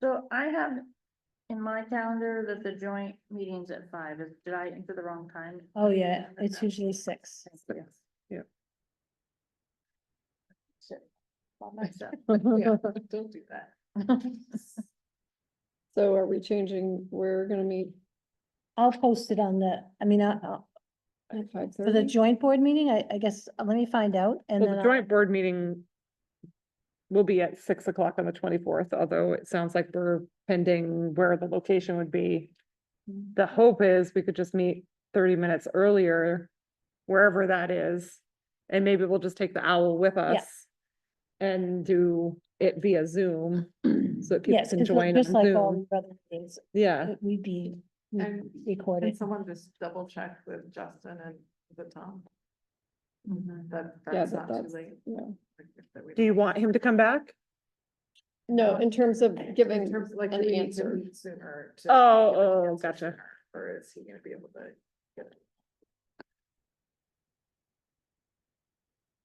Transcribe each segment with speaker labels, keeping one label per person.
Speaker 1: So I have in my calendar that the joint meeting's at five. Is- Did I enter the wrong time?
Speaker 2: Oh, yeah, it's usually six.
Speaker 1: Thank you.
Speaker 3: Yeah.
Speaker 1: Shit. All messed up.
Speaker 4: Yeah.
Speaker 1: Don't do that.
Speaker 4: So are we changing, we're gonna meet
Speaker 2: I'll post it on the, I mean, I- I'll-
Speaker 4: at five
Speaker 2: for the
Speaker 4: thirty?
Speaker 2: joint board meeting, I, I guess, uh, let me find out and
Speaker 3: Well,
Speaker 2: then.
Speaker 3: the
Speaker 2: I'll-
Speaker 3: joint board meeting will be at six o'clock on the twenty-fourth, although it sounds like we're pending where the location would be. The hope is we could just meet thirty minutes earlier, wherever that is. And maybe we'll just take the owl with us and do it via Zoom, so that people
Speaker 2: Yes,
Speaker 3: can
Speaker 2: it's
Speaker 3: join
Speaker 2: just
Speaker 3: on
Speaker 2: like um, uh, all
Speaker 3: Zoom.
Speaker 2: the other things,
Speaker 3: Yeah,
Speaker 2: it would be re-
Speaker 5: And- Can
Speaker 2: recorded.
Speaker 5: someone just double check with Justin and with Tom
Speaker 1: Mhm.
Speaker 5: that
Speaker 4: Yeah,
Speaker 5: that's not
Speaker 4: but
Speaker 5: too
Speaker 4: that's,
Speaker 5: late?
Speaker 4: yeah.
Speaker 5: like, if that we-
Speaker 3: do you want him to come back?
Speaker 4: No, in terms of
Speaker 5: In
Speaker 4: giving,
Speaker 5: terms of, like,
Speaker 4: an
Speaker 5: do we need to
Speaker 4: answer.
Speaker 5: meet sooner? to
Speaker 3: Oh,
Speaker 5: give an
Speaker 3: oh,
Speaker 5: answer
Speaker 3: gotcha.
Speaker 5: sooner, Or is he gonna be able to?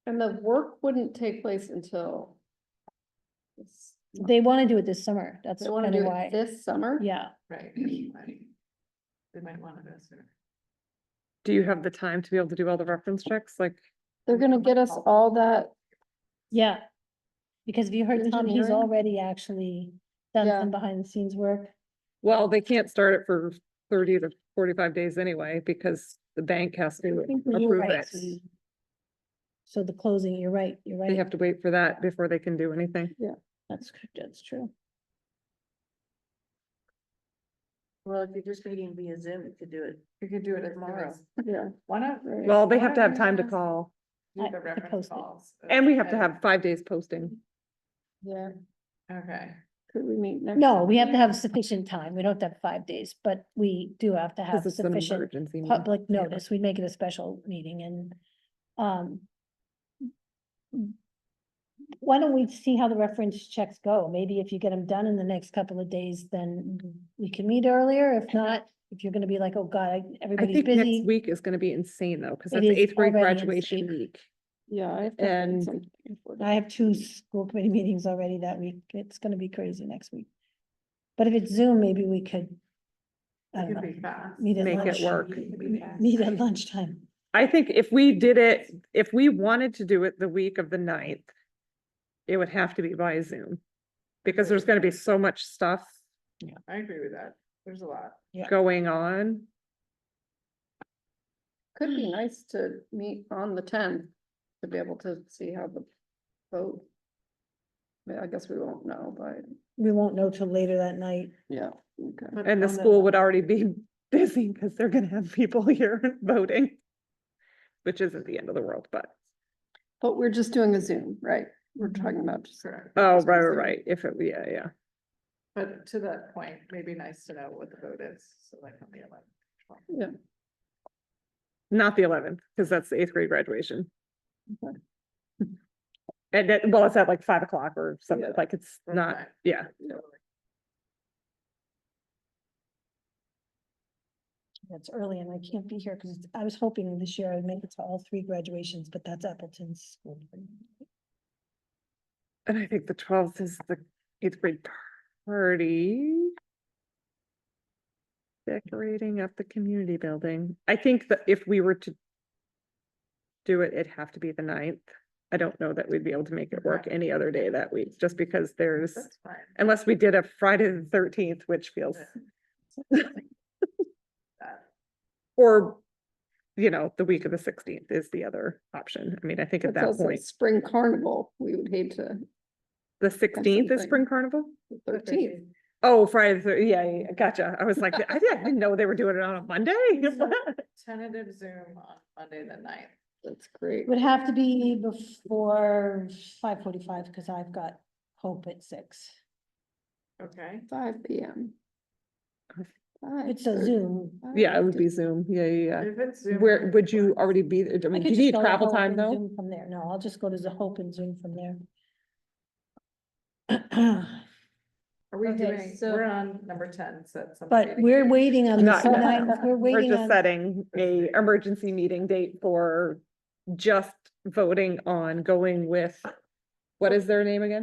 Speaker 4: and the work wouldn't take place until this-
Speaker 2: They want to do it this summer, that's
Speaker 4: they wanna
Speaker 2: kind of
Speaker 4: do it
Speaker 2: why,
Speaker 4: this summer?
Speaker 2: yeah,
Speaker 5: Right. right. They might wanna go sooner.
Speaker 3: Do you have the time to be able to do all the reference checks? Like,
Speaker 4: They're gonna get us all that,
Speaker 2: yeah. Because if you heard Tom, he's
Speaker 4: Engineering?
Speaker 2: already actually done
Speaker 4: Yeah.
Speaker 2: some behind the scenes work.
Speaker 3: Well, they can't start it for thirty to forty-five days anyway, because the bank has to
Speaker 2: You're
Speaker 3: approve
Speaker 2: right.
Speaker 3: it.
Speaker 2: So the closing, you're right, you're
Speaker 3: They have
Speaker 2: right,
Speaker 3: to wait for that before they can do anything.
Speaker 2: that's, cr- that's true.
Speaker 1: Well, if you're just meeting via Zoom, you could do it.
Speaker 5: We could do it tomorrow.
Speaker 1: Tomorrow.
Speaker 4: yeah.
Speaker 5: Why not?
Speaker 4: Right.
Speaker 3: Well, they
Speaker 5: Why
Speaker 3: have to have
Speaker 5: don't we
Speaker 3: time to
Speaker 5: just
Speaker 3: call,
Speaker 2: I-
Speaker 5: Do the
Speaker 2: I
Speaker 5: reference
Speaker 2: post it.
Speaker 5: calls.
Speaker 3: and we have to have five days posting.
Speaker 4: Yeah,
Speaker 5: Okay,
Speaker 4: could we meet next?
Speaker 2: No, we have to have sufficient time, we don't have to have five days, but we do have to have
Speaker 3: This is an
Speaker 2: sufficient
Speaker 3: emergency. meeting.
Speaker 2: public notice, we'd make it a special meeting and, um. Why don't we see how the reference checks go? Maybe if you get them done in the next couple of days, then we can meet earlier. If not, if you're gonna be like, oh god, I-
Speaker 3: I
Speaker 2: everybody's
Speaker 3: think next
Speaker 2: busy.
Speaker 3: week is gonna be insane though, because
Speaker 2: It
Speaker 3: that's
Speaker 2: is
Speaker 3: eighth grade
Speaker 2: already
Speaker 3: graduation
Speaker 2: insane.
Speaker 3: week.
Speaker 4: Yeah. I have to have
Speaker 3: And-
Speaker 4: something before that.
Speaker 2: I have two school committee meetings already that week. It's gonna be crazy next week. But if it's Zoom, maybe we could. I
Speaker 5: it
Speaker 2: don't
Speaker 5: could
Speaker 2: know,
Speaker 5: be fast.
Speaker 2: meet at
Speaker 3: Make it
Speaker 2: lunch.
Speaker 3: work.
Speaker 5: It could be fast.
Speaker 2: Meet at lunchtime.
Speaker 3: I think if we did it, if we wanted to do it the week of the ninth, it would have to be by Zoom. Because there's gonna be so much stuff
Speaker 5: I agree with that. There's a lot.
Speaker 3: going on.
Speaker 4: Could be nice to meet on the tenth to be able to see how the vote. I mean, I guess we won't know, but
Speaker 2: We won't know till later that night.
Speaker 4: yeah, okay.
Speaker 5: But
Speaker 3: And the
Speaker 5: on
Speaker 3: school would already be busy because they're gonna have people here voting. Which isn't the end of the world, but,
Speaker 4: But we're just doing a Zoom, right? We're talking about just.
Speaker 5: Correct.
Speaker 3: oh,
Speaker 4: Just
Speaker 3: right,
Speaker 4: the
Speaker 3: right,
Speaker 4: Zoom.
Speaker 3: right, if it, yeah, yeah.
Speaker 5: But to that point, maybe nice to know what the vote is, so like on the eleventh.
Speaker 4: Yeah,
Speaker 3: Not the eleventh, because that's the eighth grade graduation.
Speaker 4: Okay.
Speaker 3: And that, well, it's at like five o'clock or something,
Speaker 4: Yeah.
Speaker 3: like it's
Speaker 5: Or
Speaker 3: not,
Speaker 5: five.
Speaker 3: yeah,
Speaker 2: That's early and I can't be here because I was hoping this year I'd make it to all three graduations, but that's Appleton's school.
Speaker 3: and I think the twelfth is the eighth grade party. Decorating up the community building. I think that if we were to. Do it, it'd have to be the ninth. I don't know that we'd be able to make it work
Speaker 5: Okay.
Speaker 3: any other day that week, just because there's,
Speaker 5: That's fine.
Speaker 3: unless we did a Friday the thirteenth, which feels,
Speaker 5: Yeah. That-
Speaker 3: or. You know, the week of the sixteenth is the other option. I mean, I think at
Speaker 4: it's
Speaker 3: that
Speaker 4: also
Speaker 3: point,
Speaker 4: spring carnival. We would hate to
Speaker 3: the sixteenth is
Speaker 4: something.
Speaker 3: spring carnival?
Speaker 4: thirteenth.
Speaker 3: Oh, Friday, the thir- yeah, yeah, yeah, gotcha. I was like, I didn't know they were doing it on a Monday.
Speaker 5: So- Tentative Zoom on Monday the ninth.
Speaker 4: That's great.
Speaker 2: It would have to be before five forty-five because I've got hope at six.
Speaker 5: Okay.
Speaker 4: Five P M.
Speaker 2: If It's a Zoom.
Speaker 3: Yeah, it would be Zoom. Yeah, yeah,
Speaker 5: If it's
Speaker 3: yeah.
Speaker 5: Zoom.
Speaker 3: Where,
Speaker 5: I'm
Speaker 3: would you
Speaker 5: fine.
Speaker 3: already be, there? I
Speaker 2: I
Speaker 3: mean, do
Speaker 2: could just
Speaker 3: you need
Speaker 2: go to
Speaker 3: travel
Speaker 2: Hope
Speaker 3: time
Speaker 2: and
Speaker 3: though?
Speaker 2: Zoom From there, no, I'll just go to the Hope and Zoom from there.
Speaker 5: Are we
Speaker 2: Okay,
Speaker 5: doing,
Speaker 2: so-
Speaker 5: we're on number ten, so that's. something
Speaker 2: But
Speaker 5: we
Speaker 2: we're
Speaker 5: can-
Speaker 2: waiting on the
Speaker 3: Not yet.
Speaker 2: ninth, we're
Speaker 3: We're
Speaker 2: waiting
Speaker 3: just
Speaker 2: on,
Speaker 3: setting a emergency meeting date for just voting on going with, what is their name again?